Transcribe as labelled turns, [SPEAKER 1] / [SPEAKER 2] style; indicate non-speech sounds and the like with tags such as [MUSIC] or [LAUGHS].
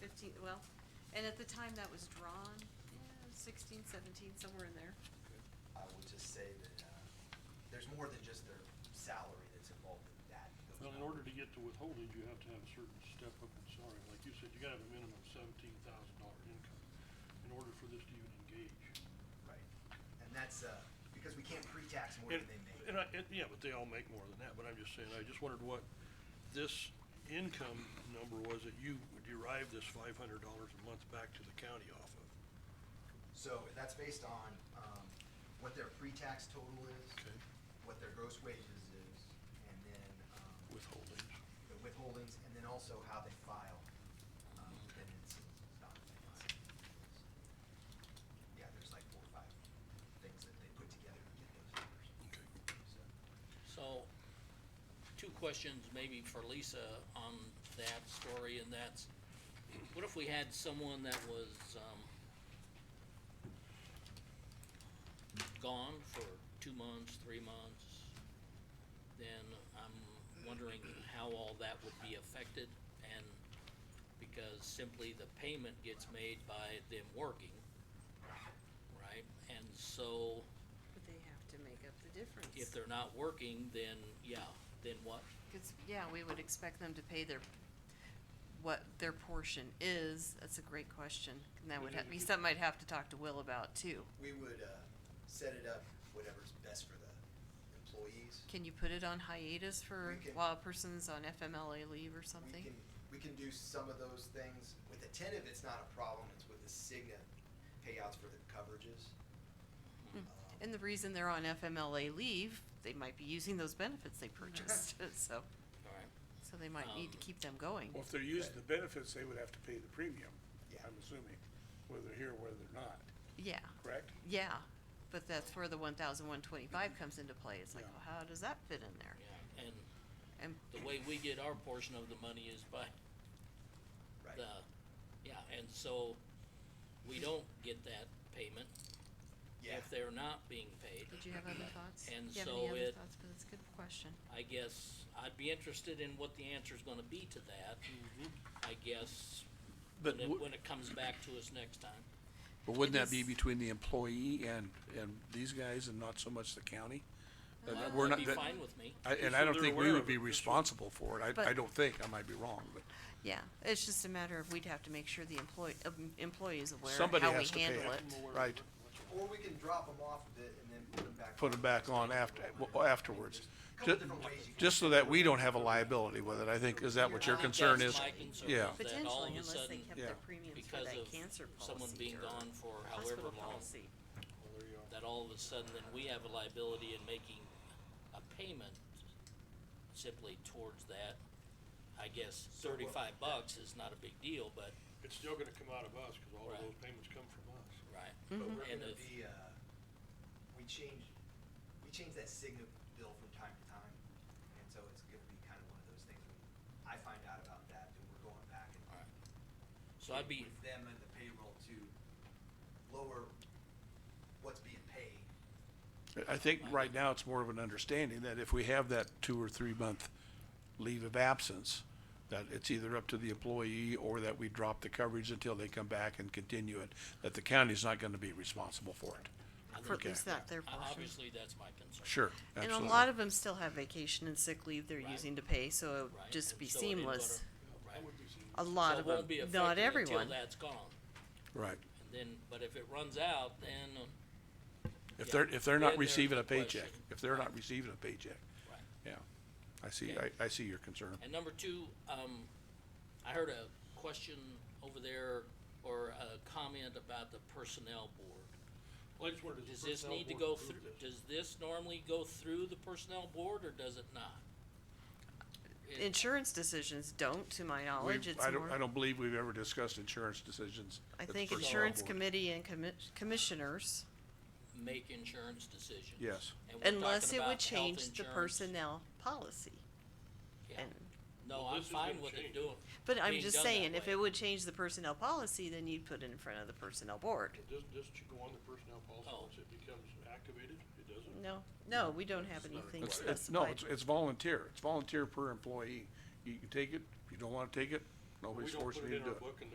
[SPEAKER 1] sixteen, well, and at the time that was drawn, yeah, sixteen, seventeen, somewhere in there.
[SPEAKER 2] I would just say that, uh, there's more than just their salary that's involved in that. those
[SPEAKER 3] Well, in
[SPEAKER 2] numbers.
[SPEAKER 3] order to get to withholding, you have to have a certain step up in salary. Like you said, you gotta have a minimum seventeen thousand dollar income in order for this to even engage.
[SPEAKER 2] Right, and that's, uh, because we can't pre-tax more
[SPEAKER 3] And,
[SPEAKER 2] than they make.
[SPEAKER 3] and I, and, yeah, but they all make more than that, but I'm just saying, I just wondered what this income number was that you derived this five hundred dollars a month back to the county off of.
[SPEAKER 2] So that's based on, um, what their pre-tax total is.
[SPEAKER 3] Okay.
[SPEAKER 2] What their gross wages is, and then, um,
[SPEAKER 3] Withholdings.
[SPEAKER 2] the withholdings, and then also how they file, um, dependencies, not dependencies. Yeah, there's like four or five things that they put together to get those numbers,
[SPEAKER 3] Okay.
[SPEAKER 2] so.
[SPEAKER 4] So, two questions maybe for Lisa on that story, and that's, what if we had someone that was, um, gone for two months, three months, then I'm wondering how all that would be affected, and because simply the payment gets made by them working, right? And so,
[SPEAKER 1] But they have to make up the difference.
[SPEAKER 4] if they're not working, then, yeah, then what?
[SPEAKER 1] Cause, yeah, we would expect them to pay their, what their portion is, that's a great question, and that would ha- be something I'd have to talk to Will about too.
[SPEAKER 2] We would, uh, set it up whatever's best for the employees.
[SPEAKER 1] Can you put it on hiatus for,
[SPEAKER 2] We can-
[SPEAKER 1] while a person's on FMLA leave or something?
[SPEAKER 2] We can, we can do some of those things. With the Attentive, it's not a problem, it's with the Cigna payouts for the coverages. Um,
[SPEAKER 1] And the reason they're on FMLA leave, they might be using those benefits they purchased, [LAUGHS] so,
[SPEAKER 4] Alright.
[SPEAKER 1] so they might need to
[SPEAKER 4] Um,
[SPEAKER 1] keep them going.
[SPEAKER 5] Well, if they're using the benefits, they would have to pay the premium,
[SPEAKER 2] Yeah.
[SPEAKER 5] I'm assuming, whether they're here, whether they're not,
[SPEAKER 1] Yeah,
[SPEAKER 5] correct?
[SPEAKER 1] yeah, but that's where the one thousand one twenty-five comes into play, it's like,
[SPEAKER 5] Yeah.
[SPEAKER 1] well, how does that fit in there?
[SPEAKER 4] Yeah, and
[SPEAKER 1] And
[SPEAKER 4] the way we get our portion of the money is by
[SPEAKER 2] Right.
[SPEAKER 4] the, yeah, and so we don't get that payment
[SPEAKER 2] Yeah,
[SPEAKER 4] if they're not being paid.
[SPEAKER 1] Did you have other thoughts?
[SPEAKER 4] And
[SPEAKER 1] Do you have
[SPEAKER 4] so
[SPEAKER 1] any other
[SPEAKER 4] it-
[SPEAKER 1] thoughts? But it's a good question.
[SPEAKER 4] I guess I'd be interested in what the answer's gonna be to that,
[SPEAKER 2] Mm-hmm.
[SPEAKER 4] I guess,
[SPEAKER 6] But
[SPEAKER 4] when it,
[SPEAKER 6] wou-
[SPEAKER 4] when it comes back to us next time.
[SPEAKER 6] But wouldn't
[SPEAKER 1] It
[SPEAKER 6] that be
[SPEAKER 1] is-
[SPEAKER 6] between the employee and, and these guys and not so much the county? Uh,
[SPEAKER 4] Well,
[SPEAKER 6] We're not,
[SPEAKER 4] That'd be
[SPEAKER 6] that-
[SPEAKER 4] fine with me.
[SPEAKER 6] I- and
[SPEAKER 3] So
[SPEAKER 6] I don't
[SPEAKER 3] they're
[SPEAKER 6] think
[SPEAKER 3] aware
[SPEAKER 6] we
[SPEAKER 3] of
[SPEAKER 6] would
[SPEAKER 3] it,
[SPEAKER 6] be
[SPEAKER 3] that's what-
[SPEAKER 6] responsible for it. I, I
[SPEAKER 1] But-
[SPEAKER 6] don't think, I might be wrong, but
[SPEAKER 1] Yeah, it's just a matter of we'd have to make sure the employee, um, employee is aware of
[SPEAKER 6] Somebody
[SPEAKER 1] how we
[SPEAKER 6] has to pay
[SPEAKER 1] handle
[SPEAKER 6] it.
[SPEAKER 1] it.
[SPEAKER 3] I'm aware of
[SPEAKER 6] Right.
[SPEAKER 3] it. That's all.
[SPEAKER 2] or we can drop them off a bit and then put them back.
[SPEAKER 6] put
[SPEAKER 2] on.
[SPEAKER 6] them back on after, well, afterwards.
[SPEAKER 2] There's a Couple
[SPEAKER 6] Ju-
[SPEAKER 2] different ways you can.
[SPEAKER 6] Just so that we don't have a liability with it, I think, is that what your
[SPEAKER 4] I think
[SPEAKER 6] concern
[SPEAKER 4] that's
[SPEAKER 6] is?
[SPEAKER 4] my concern,
[SPEAKER 6] Yeah.
[SPEAKER 4] is that all of a sudden,
[SPEAKER 6] Yeah.
[SPEAKER 1] premiums
[SPEAKER 4] because of someone being gone for however long,
[SPEAKER 3] Well, there you are.
[SPEAKER 4] that all of a sudden then we have a liability in making a payment simply towards that. I guess
[SPEAKER 2] So what-
[SPEAKER 4] thirty-five bucks is not a big deal, but,
[SPEAKER 3] It's still gonna come out of us, cause all of
[SPEAKER 4] Right.
[SPEAKER 3] those payments come from us.
[SPEAKER 4] right,
[SPEAKER 2] But we're
[SPEAKER 4] And
[SPEAKER 2] gonna
[SPEAKER 4] if-
[SPEAKER 2] be, uh, we change, we change that Cigna bill from time to time, and so it's gonna be kind of one of those things, when I find out about that, then we're going back and.
[SPEAKER 4] alright. So I'd be,
[SPEAKER 2] With them and the payroll to lower what's being paid.
[SPEAKER 6] I think right now it's more of an understanding that if we have that two or three month leave of absence, that it's either up to the employee or that we drop the coverage until they come back and continue it, that the county's not gonna be responsible for it.
[SPEAKER 1] For at
[SPEAKER 6] Okay.
[SPEAKER 1] least that their
[SPEAKER 4] o-
[SPEAKER 1] portion.
[SPEAKER 4] obviously, that's my concern.
[SPEAKER 6] Sure,
[SPEAKER 1] And
[SPEAKER 6] absolutely.
[SPEAKER 1] a lot of them still have vacation and sick leave they're
[SPEAKER 4] Right.
[SPEAKER 1] using to pay, so it
[SPEAKER 4] right?
[SPEAKER 1] would just
[SPEAKER 4] And
[SPEAKER 1] be
[SPEAKER 4] so it ain't gonna-
[SPEAKER 1] seamless.
[SPEAKER 4] right.
[SPEAKER 3] That would be seen.
[SPEAKER 1] A lot
[SPEAKER 4] So
[SPEAKER 1] of
[SPEAKER 4] it
[SPEAKER 1] them,
[SPEAKER 4] won't be
[SPEAKER 1] not
[SPEAKER 4] affected
[SPEAKER 1] everyone.
[SPEAKER 4] Until that's gone,
[SPEAKER 6] Right.
[SPEAKER 4] and then, but if it runs out, then, uh,
[SPEAKER 6] If
[SPEAKER 4] Yeah.
[SPEAKER 6] they're, if they're
[SPEAKER 4] Then there's
[SPEAKER 6] not receiving
[SPEAKER 4] the
[SPEAKER 6] a paycheck,
[SPEAKER 4] question.
[SPEAKER 6] if they're not receiving a paycheck,
[SPEAKER 4] right.
[SPEAKER 6] yeah. I see,
[SPEAKER 4] Okay.
[SPEAKER 6] I, I see your concern.
[SPEAKER 4] And number two, um, I heard a question over there or a comment about the personnel board.
[SPEAKER 3] Well, I just wondered,
[SPEAKER 4] Does
[SPEAKER 3] does
[SPEAKER 4] this
[SPEAKER 3] personnel
[SPEAKER 4] need to
[SPEAKER 3] board
[SPEAKER 4] go
[SPEAKER 3] approve
[SPEAKER 4] through,
[SPEAKER 3] this?
[SPEAKER 4] does this normally go through the personnel board or does it not? It-
[SPEAKER 1] Insurance decisions don't, to my
[SPEAKER 6] We,
[SPEAKER 1] knowledge, it's
[SPEAKER 6] I don't, I
[SPEAKER 1] more,
[SPEAKER 6] don't believe we've ever discussed insurance decisions.
[SPEAKER 1] I
[SPEAKER 6] at the
[SPEAKER 1] think
[SPEAKER 6] personnel
[SPEAKER 1] insurance
[SPEAKER 6] board.
[SPEAKER 1] committee and commi- commissioners,
[SPEAKER 4] Make insurance decisions.
[SPEAKER 6] Yes.
[SPEAKER 4] And we're
[SPEAKER 1] unless
[SPEAKER 4] talking
[SPEAKER 1] it would
[SPEAKER 4] about health
[SPEAKER 1] change the
[SPEAKER 4] insurance.
[SPEAKER 1] personnel policy.
[SPEAKER 4] Yeah.
[SPEAKER 1] And,
[SPEAKER 4] No,
[SPEAKER 3] Well,
[SPEAKER 4] I'm
[SPEAKER 3] this is
[SPEAKER 4] fine
[SPEAKER 3] gonna
[SPEAKER 4] with it
[SPEAKER 3] change.
[SPEAKER 4] doing,
[SPEAKER 1] but I'm
[SPEAKER 4] Being
[SPEAKER 1] just
[SPEAKER 4] done that
[SPEAKER 1] saying, if
[SPEAKER 4] way.
[SPEAKER 1] it would change the personnel policy, then you'd put it in front of the personnel board.
[SPEAKER 3] But Does, does it go on the personnel policy
[SPEAKER 4] Oh.
[SPEAKER 3] once it becomes activated? It doesn't?
[SPEAKER 1] No, no, we don't have
[SPEAKER 3] It's not
[SPEAKER 1] anything
[SPEAKER 6] It's,
[SPEAKER 3] required.
[SPEAKER 6] it's, no,
[SPEAKER 1] specified.
[SPEAKER 6] it's, it's volunteer. It's volunteer per employee. You can take it, if you don't wanna take it,
[SPEAKER 3] We
[SPEAKER 6] nobody's
[SPEAKER 3] don't
[SPEAKER 6] forcing
[SPEAKER 3] put
[SPEAKER 6] you
[SPEAKER 3] it
[SPEAKER 6] to
[SPEAKER 3] in
[SPEAKER 6] do
[SPEAKER 3] our
[SPEAKER 6] it.
[SPEAKER 3] book and